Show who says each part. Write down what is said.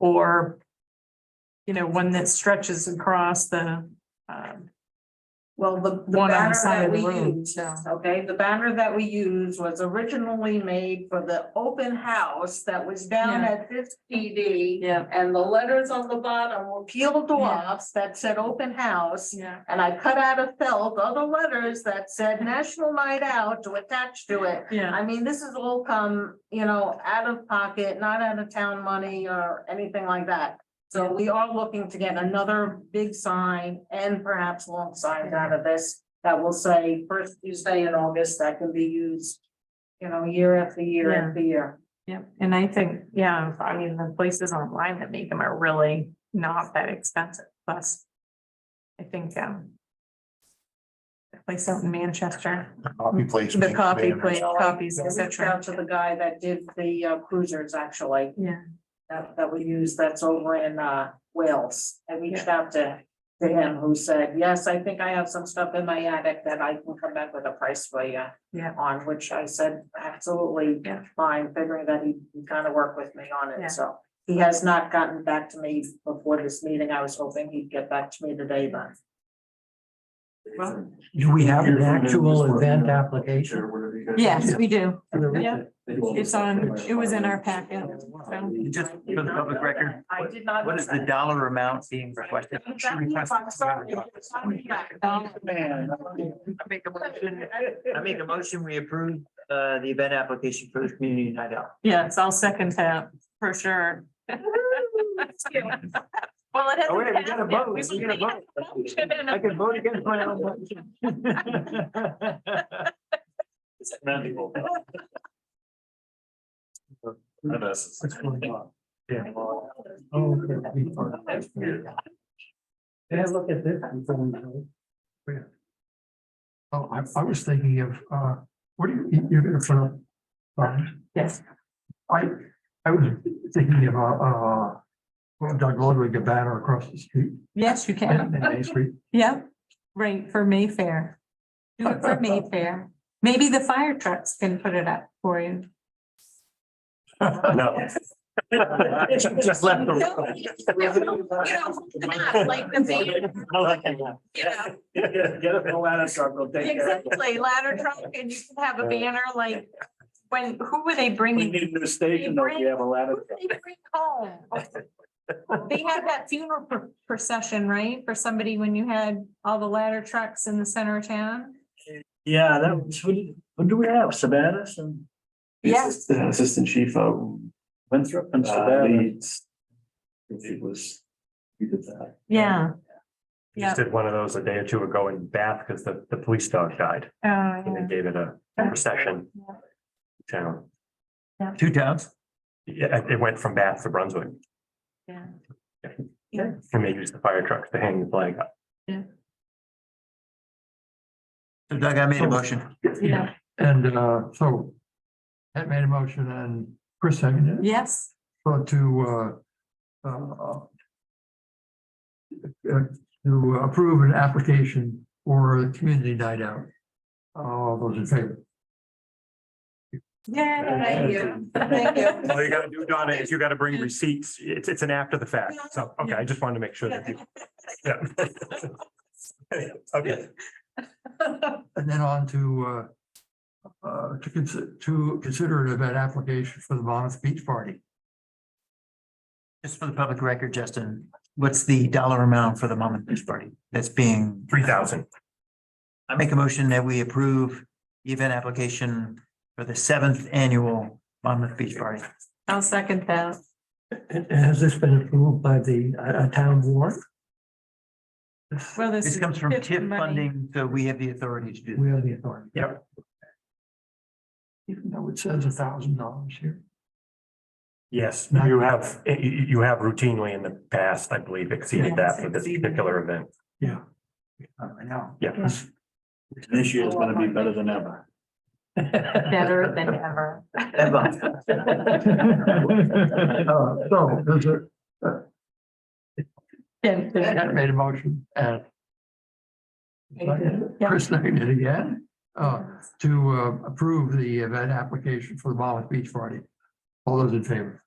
Speaker 1: Or, you know, one that stretches across the, um,
Speaker 2: Well, the,
Speaker 1: One
Speaker 2: the
Speaker 1: on the
Speaker 2: banner
Speaker 1: side
Speaker 2: that
Speaker 1: of the
Speaker 2: we
Speaker 1: road,
Speaker 2: use,
Speaker 1: so.
Speaker 2: okay, the banner that we use was originally made for the open house that was down
Speaker 1: Yeah.
Speaker 2: at this PD.
Speaker 1: Yeah.
Speaker 2: And the letters on the bottom were peeled off that said open house.
Speaker 1: yeah,
Speaker 2: And I cut out of felt other letters that said National Night Out to attach to it.
Speaker 1: yeah,
Speaker 2: I mean, this has all come, you know, out of pocket, not out of town money or anything like that. So we are looking to get another big sign and perhaps long signs out of this that will say first Tuesday in August that can be used, you know, year after year
Speaker 1: Yeah.
Speaker 2: after year.
Speaker 1: yeah. And I think, yeah, I mean, the places online that make them are really not that expensive, plus. I think, um. The place out in Manchester,
Speaker 3: Copy place.
Speaker 1: the
Speaker 3: makes
Speaker 1: coffee
Speaker 3: banners.
Speaker 1: place, copies,
Speaker 2: I
Speaker 1: et
Speaker 2: reached out
Speaker 1: cetera.
Speaker 2: to the guy that did the uh, cruisers actually.
Speaker 1: Yeah.
Speaker 2: That, that we use that's over in uh, Wales. I reached out to, to him who said, yes, I think I have some stuff in my attic that I can come back with a price for you.
Speaker 1: Yeah.
Speaker 2: On which I said, absolutely
Speaker 1: Yeah.
Speaker 2: fine, figuring that he kind of worked with me on
Speaker 1: Yeah.
Speaker 2: it, so. He has not gotten back to me before this meeting. I was hoping he'd get back to me today, but.
Speaker 4: Do we have an
Speaker 5: Here's one of them, just
Speaker 4: actual
Speaker 5: working
Speaker 4: event
Speaker 5: on-
Speaker 4: application?
Speaker 5: Or whatever you guys-
Speaker 1: Yes, we do.
Speaker 4: for the-
Speaker 1: Yeah. It's on, it was in our packet, so.
Speaker 6: Just
Speaker 2: I did
Speaker 6: for the
Speaker 2: not
Speaker 6: public
Speaker 2: know
Speaker 6: record,
Speaker 2: that. I
Speaker 6: what-
Speaker 2: did not.
Speaker 6: what
Speaker 2: know
Speaker 6: is the
Speaker 2: that.
Speaker 6: dollar amount being requested? Should we request-
Speaker 2: I'm sorry. I'm sorry.
Speaker 6: I make a motion, I make a motion, we approve uh the event application for the community night out.
Speaker 1: Yes, I'll second that, for sure. Well, it
Speaker 6: Oh, wait, we
Speaker 1: hasn't
Speaker 6: gotta
Speaker 1: passed
Speaker 6: vote,
Speaker 1: yet.
Speaker 6: we
Speaker 1: We
Speaker 6: gotta vote. I can vote against my own motion. It's manageable.
Speaker 4: What's going on? Oh, okay. We are- Can I look at this? before we go? Where? Oh, I, I was thinking of, uh, what do you, you're in front of? um,
Speaker 1: Yes.
Speaker 4: I, I was thinking of, uh, uh, Doug Ludwig, a banner across the street,
Speaker 1: Yes, you
Speaker 4: in
Speaker 1: can.
Speaker 4: Main Street.
Speaker 1: Yep, right, for Mayfair. Do it for Mayfair. Maybe the fire trucks can put it up for you.
Speaker 6: No. Just left the. Get up in a ladder circle, take
Speaker 1: Exactly, ladder truck, and you can have a banner like, when, who were they bringing?
Speaker 6: a new
Speaker 1: station, though, if you
Speaker 6: have a ladder.
Speaker 1: Who did They bring home. They had that funeral pr- procession, right, for somebody when you had all the ladder trucks in the center of town?
Speaker 6: Yeah, that was, what, did- what do we have, Sabatis and?
Speaker 1: Yes.
Speaker 5: The Assistant chief out in
Speaker 6: Winthrop and
Speaker 5: uh,
Speaker 6: Sabatis.
Speaker 5: Leeds. It was, he did that.
Speaker 1: Yeah. Yeah.
Speaker 7: Just did one of those a day or two ago in Bath because the, the police dog died
Speaker 1: Oh,
Speaker 7: and they gave it a procession.
Speaker 1: Yeah.
Speaker 7: Town.
Speaker 6: Two towns?
Speaker 7: Yeah, it went from Bath to Brunswick.
Speaker 1: Yeah. Yeah.
Speaker 7: And they used the fire trucks to hang the flag up.
Speaker 6: So Doug, I made a motion.
Speaker 1: Yeah.
Speaker 4: And, uh, so Ed made a motion and Chris seconded it.
Speaker 1: Yes,
Speaker 4: Well, to, uh, uh, uh, to approve an application for a community night out. All those in favor?
Speaker 1: yeah.
Speaker 2: you.
Speaker 1: Thank you.
Speaker 7: All you gotta do, Donna, is you gotta bring receipts. It's, it's an after the fact. So, okay, I just wanted to make sure that you. Yeah. Okay,
Speaker 4: And then on to, uh, uh, to consider, to consider an event application for the Monmouth Beach Party.
Speaker 6: Just for the public record, Justin, what's the dollar amount for the mom and beach party that's being?
Speaker 7: three thousand.
Speaker 6: I make a motion that we approve the event application for the seventh annual Monmouth Beach Party.
Speaker 1: I'll second that.
Speaker 4: Has this been approved by the, uh, town board?
Speaker 1: Well, this.
Speaker 6: This
Speaker 1: is
Speaker 6: comes from
Speaker 1: TIF
Speaker 6: TIP
Speaker 1: money.
Speaker 6: funding, so we have the authority to do.
Speaker 4: We are the authority.
Speaker 7: Yep.
Speaker 4: Even though it says a thousand dollars here.
Speaker 7: Yes, you have, you, you have routinely in the past, I believe, exceeded that for this particular event.
Speaker 4: Yeah.
Speaker 5: I know.
Speaker 7: Yeah.
Speaker 5: This year is gonna be better than ever.
Speaker 1: Better than ever.
Speaker 5: Ever.
Speaker 4: Uh, so, there's a,
Speaker 1: Yeah, yeah.
Speaker 4: Ed made a motion and
Speaker 1: Yeah.
Speaker 4: Chris seconded again, uh, to uh, approve the event application for the Monmouth Beach Party. All those in favor?